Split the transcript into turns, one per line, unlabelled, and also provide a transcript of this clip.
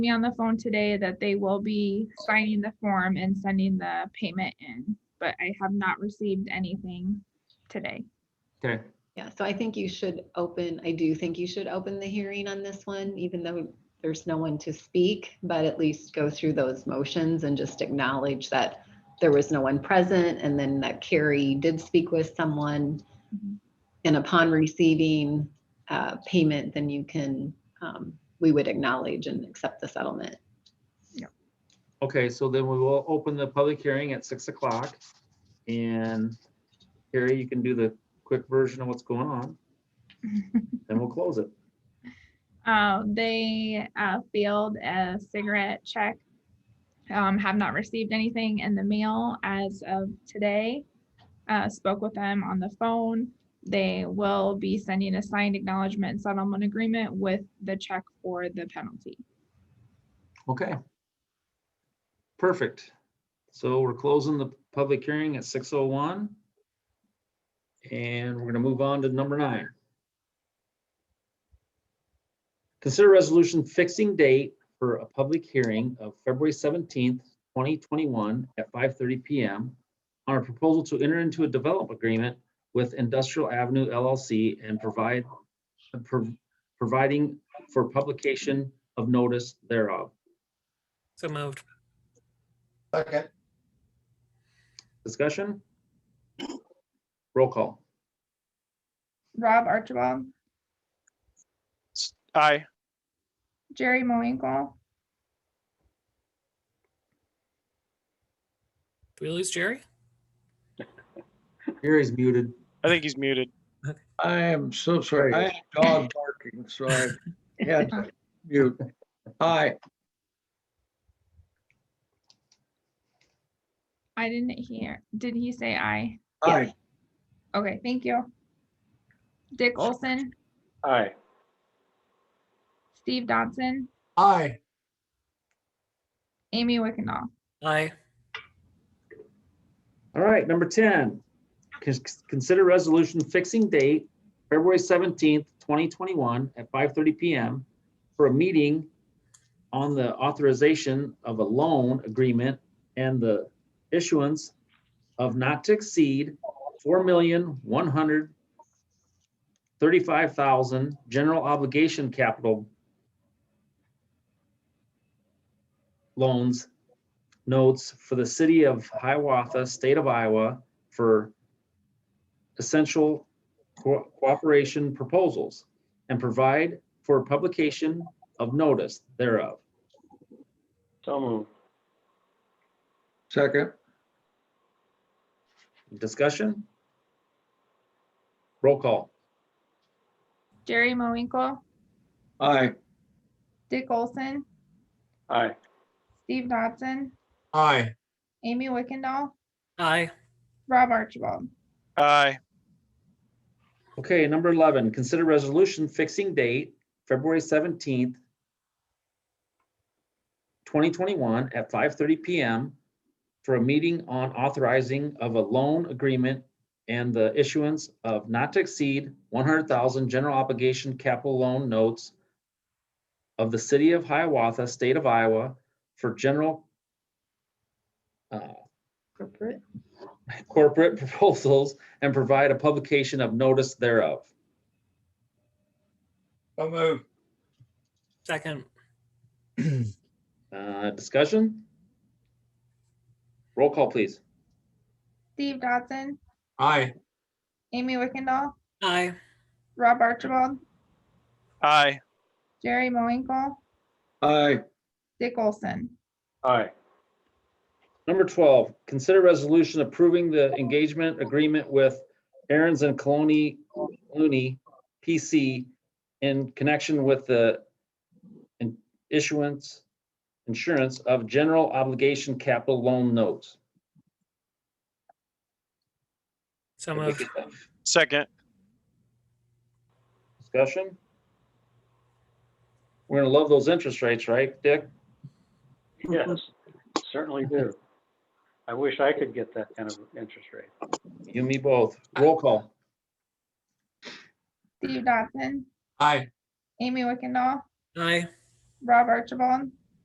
me on the phone today that they will be signing the form and sending the payment in, but I have not received anything today.
Okay,
Yeah, so I think you should open, I do think you should open the hearing on this one, even though there's no one to speak, but at least go through those motions and just acknowledge that there was no one present and then that Carrie did speak with someone.
Mhm.
And upon receiving uh, payment, then you can, um, we would acknowledge and accept the settlement.
okay, so then we will open the public hearing at six o'clock. And Carrie, you can do the quick version of what's going on, and we'll close it.
Uh, they uh, failed a cigarette check, um, have not received anything in the mail as of today. Uh, spoke with them on the phone. They will be sending a signed acknowledgement and settlement agreement with the check for the penalty.
Okay. Perfect. So we're closing the public hearing at six oh one. And we're gonna move on to number nine. Consider resolution fixing date for a public hearing of February seventeenth, twenty twenty-one at five thirty PM on a proposal to enter into a development agreement with Industrial Avenue LLC and provide pro- providing for publication of notice thereof.
So moved.
Second,
Discussion? Roll call.
Rob Archibald,
Aye.
Jerry Moinkle,
Did we lose Jerry?
Gary's muted.
I think he's muted.
I am so sorry. I had a dog barking, so I had to mute. Aye,
I didn't hear. Did he say aye?
aye,
Okay, thank you. Dick Olson,
Aye.
Steve Dodson,
Aye,
Amy Wickendall.
Aye.
All right, number 10. Cons- Consider resolution fixing date, February 17th, 2021 at 5:30 PM for a meeting on the authorization of a loan agreement and the issuance of not to exceed 4135000 general obligation capital loans notes for the city of Hiawatha, state of Iowa, for essential co- cooperation proposals and provide for publication of notice thereof.
So moved.
second,
Discussion? Roll call.
Jerry Moinkle,
aye,
Dick Olson,
Aye.
Steve Dodson,
aye,
Amy Wickendall,
Aye.
Rob Archibald.
Aye.
Okay, number 11, consider resolution fixing date, February 17th, 2021 at 5:30 PM for a meeting on authorizing of a loan agreement and the issuance of not to exceed 100,000 general obligation capital loan notes of the city of Hiawatha, state of Iowa for general uh,
Corporate.
corporate proposals and provide a publication of notice thereof.
so move,
Second.
Uh, Discussion? Roll call, please.
Steve Dodson,
aye,
Amy Wickendall,
Aye.
Rob Archibald,
Aye.
Jerry Moinkle,
aye,
Dick Olson.
Aye.
Number 12, consider resolution approving the engagement agreement with Aaron's and Colony Looney PC in connection with the in- issuance, insurance of general obligation capital loan notes.
So moved.
Second.
Discussion? We're gonna love those interest rates, right, Dick?
Yes, certainly do. I wish I could get that kind of interest rate.
You and me both. Roll call.
Steve Dodson,
aye,
Amy Wickendall,
Aye.
Rob Archibald,